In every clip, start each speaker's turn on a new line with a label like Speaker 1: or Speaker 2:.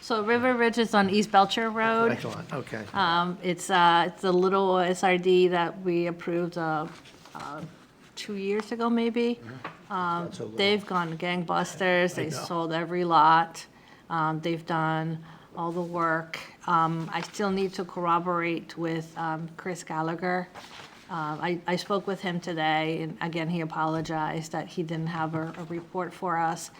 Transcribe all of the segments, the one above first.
Speaker 1: So River Ridge is on East Belcher Road.
Speaker 2: Excellent, okay.
Speaker 1: Um, It's, uh, it's a little SRD that we approved uh, uh, two years ago, maybe.
Speaker 2: Not so little.
Speaker 1: They've gone gangbusters, they
Speaker 2: know.
Speaker 1: sold every lot, um, they've done all the work. Um, I still need to corroborate with, um, Chris Gallagher. Um, I, I spoke with him today, and again, he apologized that he didn't have a, a report for us.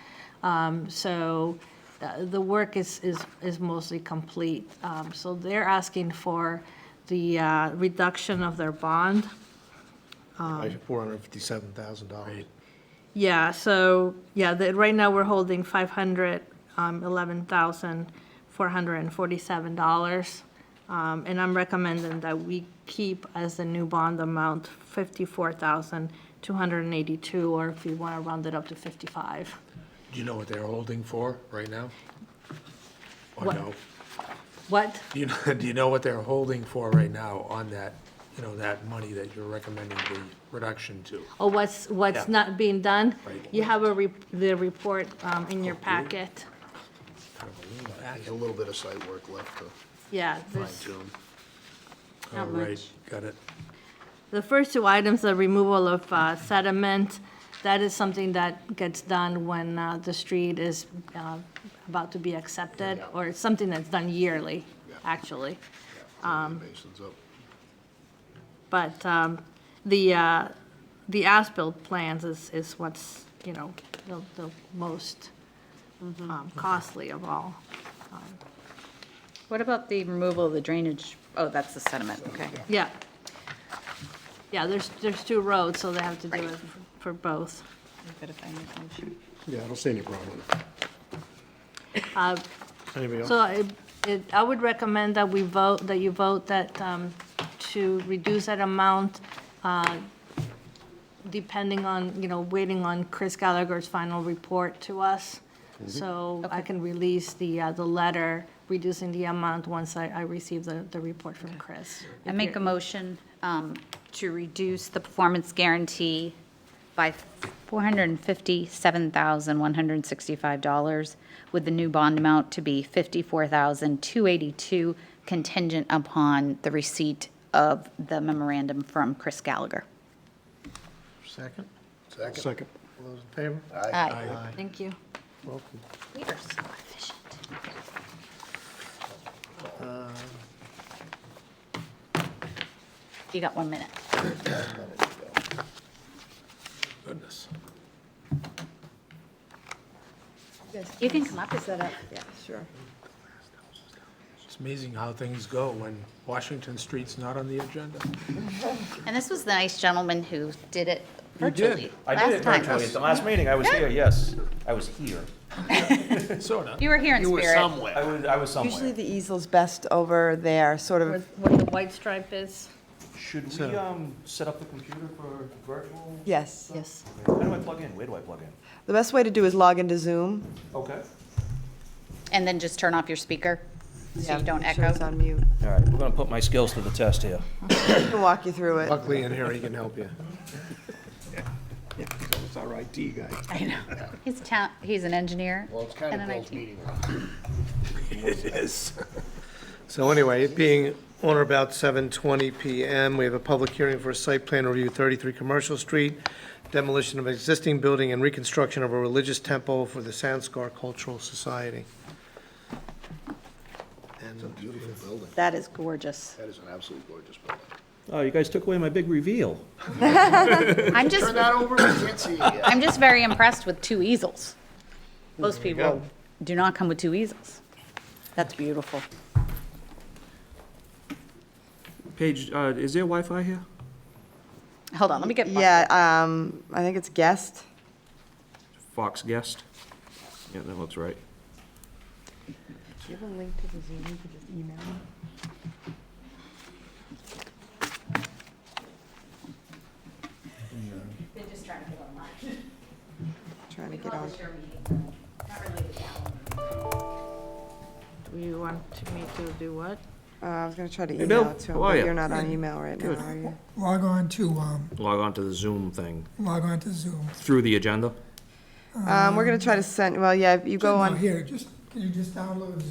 Speaker 1: Um, so, uh, the work is, is, is mostly complete. Um, so they're asking for the, uh, reduction of their bond.
Speaker 2: Four hundred and fifty-seven thousand dollars.
Speaker 1: Yeah, so, yeah, the, right now we're holding five hundred, um, eleven thousand, four hundred and forty-seven dollars. Um, and I'm recommending that we keep as the new bond amount fifty-four thousand, two hundred and eighty-two, or if you wanna round it up to fifty-five.
Speaker 3: Do you know what they're holding for right now? Or
Speaker 1: What?
Speaker 3: no?
Speaker 1: What?
Speaker 3: Do you, know- do you know what they're holding for right now on that, you know, that money that you're recommending the reduction to?
Speaker 1: Or what's, what's
Speaker 3: Yeah.
Speaker 1: not being done?
Speaker 3: Right.
Speaker 1: You have a, re- the report, um, in your packet.
Speaker 2: A little bit of site work left to
Speaker 1: Yeah,
Speaker 2: fine
Speaker 1: this,
Speaker 2: tune.
Speaker 1: Not
Speaker 3: All right,
Speaker 1: much.
Speaker 3: got it.
Speaker 1: The first two items, the removal of uh, sediment, that is something that gets done when uh, the street is uh, about to be accepted, or it's something that's done yearly, actually.
Speaker 2: Mason's up.
Speaker 1: But um, the, uh, the as-built plans is, is what's, you know, the, the most um, costly of all.
Speaker 4: What about the removal of the drainage? Oh, that's the sediment, okay.
Speaker 1: Yeah. Yeah, there's, there's two roads, so they have to do
Speaker 4: Right.
Speaker 1: it for both.
Speaker 4: Good if I make a motion.
Speaker 5: Yeah, I don't see any problem.
Speaker 1: Uh,
Speaker 2: Anybody
Speaker 1: So I,
Speaker 2: else?
Speaker 1: it, I would recommend that we vote, that you vote that, um, to reduce that amount, uh, depending on, you know, waiting on Chris Gallagher's final report to us. So I
Speaker 4: Okay.
Speaker 1: can release the, uh, the letter reducing the amount once I, I receive the, the report from Chris.
Speaker 4: I make a motion um, to reduce the performance guarantee by $457,165, with the new bond amount to be $54,282 contingent upon the receipt of the memorandum from Chris Gallagher.
Speaker 2: Second? Second.
Speaker 5: Second.
Speaker 2: All those in favor?
Speaker 4: Aye.
Speaker 1: Thank you.
Speaker 2: Welcome.
Speaker 4: We are so efficient. You got one minute.
Speaker 3: Goodness.
Speaker 4: You can come up if that.
Speaker 6: Yeah, sure.
Speaker 3: It's amazing how things go when Washington Street's not on the agenda.
Speaker 4: And this was the nice gentleman who did it
Speaker 3: You did.
Speaker 4: virtually.
Speaker 7: I did it
Speaker 4: last time.
Speaker 7: virtually at the last meeting. I was here, yes. I was here.
Speaker 3: Sorta.
Speaker 4: You were here in spirit.
Speaker 7: I was, I was
Speaker 6: Usually
Speaker 7: somewhere.
Speaker 6: the easel's best over there, sort of.
Speaker 1: What the white stripe is?
Speaker 7: Should we, um, set up the computer for virtual?
Speaker 6: Yes.
Speaker 1: Yes.
Speaker 7: How do I plug in? Where do I plug in?
Speaker 6: The best way to do is log into Zoom.
Speaker 7: Okay.
Speaker 4: And then just turn off your speaker so
Speaker 6: Yeah,
Speaker 4: you don't
Speaker 6: make sure it's
Speaker 4: echo.
Speaker 6: on mute.
Speaker 7: All right, we're gonna put my skills to the test here.
Speaker 6: I can walk you through it.
Speaker 2: Buckley in here, he can help you. It's our IT guy.
Speaker 4: I know. He's a town, he's an engineer.
Speaker 5: Well, it's kind
Speaker 4: and
Speaker 5: of
Speaker 4: an
Speaker 5: Bill's
Speaker 4: IT.
Speaker 5: meeting.
Speaker 3: It is.
Speaker 2: So anyway, it being on or about 7:20 PM, we have a public hearing for a site plan review, 33 Commercial Street, demolition of existing building and reconstruction of a religious temple for the Sanskar Cultural Society. And
Speaker 5: Beautiful building.
Speaker 4: That is gorgeous.
Speaker 5: That is an absolutely gorgeous building.
Speaker 7: Oh, you guys took away my big reveal.
Speaker 4: I'm just,
Speaker 5: Turn that over, we can't see it yet.
Speaker 4: I'm just very impressed with two easels. Most people do not come with two easels. That's beautiful.
Speaker 8: Paige, uh, is there Wi-Fi here?
Speaker 4: Hold on, let me get. my-
Speaker 6: Yeah, um, I think it's guest.
Speaker 8: Fox guest? Yeah, that looks right.
Speaker 6: Trying to get on.
Speaker 1: You want me to do what?
Speaker 6: Uh, I was gonna try to
Speaker 8: Bill.
Speaker 6: email it to him,
Speaker 8: How are
Speaker 6: but
Speaker 8: ya?
Speaker 6: you're not on email right now,
Speaker 8: Good.
Speaker 6: are you?
Speaker 9: log on to, um,
Speaker 8: Log on to the Zoom thing
Speaker 9: log on to Zoom.
Speaker 8: through the agenda.
Speaker 6: Um, we're gonna try to send, well, yeah, if you go
Speaker 9: No,
Speaker 6: on.
Speaker 9: Here, just, can you just download